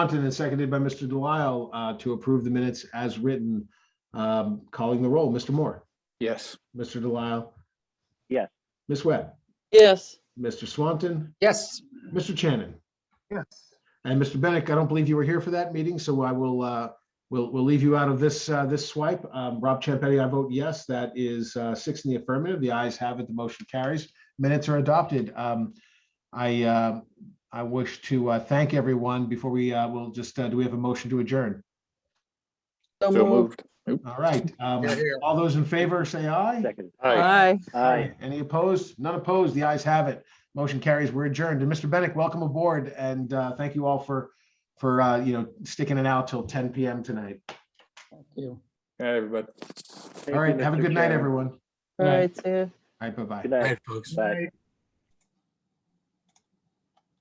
Compton and seconded by Mr. Delisle uh, to approve the minutes as written. Um, Calling the roll, Mr. Moore, Yes. Mr. Delisle. Yes. Ms. Webb, yes, Mr. Swanton, Yes. Mr. Shannon, Yes. and Mr. Bennett. I don't believe you were here for that meeting, so I will, uh, we'll, we'll leave you out of this, uh, this swipe. Um, Rob Champetti, I vote yes. That is uh, six in the affirmative. The ayes have it. The motion carries. Minutes are adopted. Um, I, uh, I wish to uh, thank everyone before we, uh, we'll just, uh, do we have a motion to adjourn? so So moved. moved. All right, um, Yeah, yeah. all those in favor, say aye. Second. Aye. Aye. Any opposed? None opposed. The ayes have it. Motion carries. We're adjourned. And Mr. Bennett, welcome aboard and, uh, thank you all for, for, uh, you know, sticking it out till ten PM tonight. All right, everybody. All right, have a good night, everyone. All Aye. right, see ya. All right, bye-bye. Good All night. right, folks. Bye.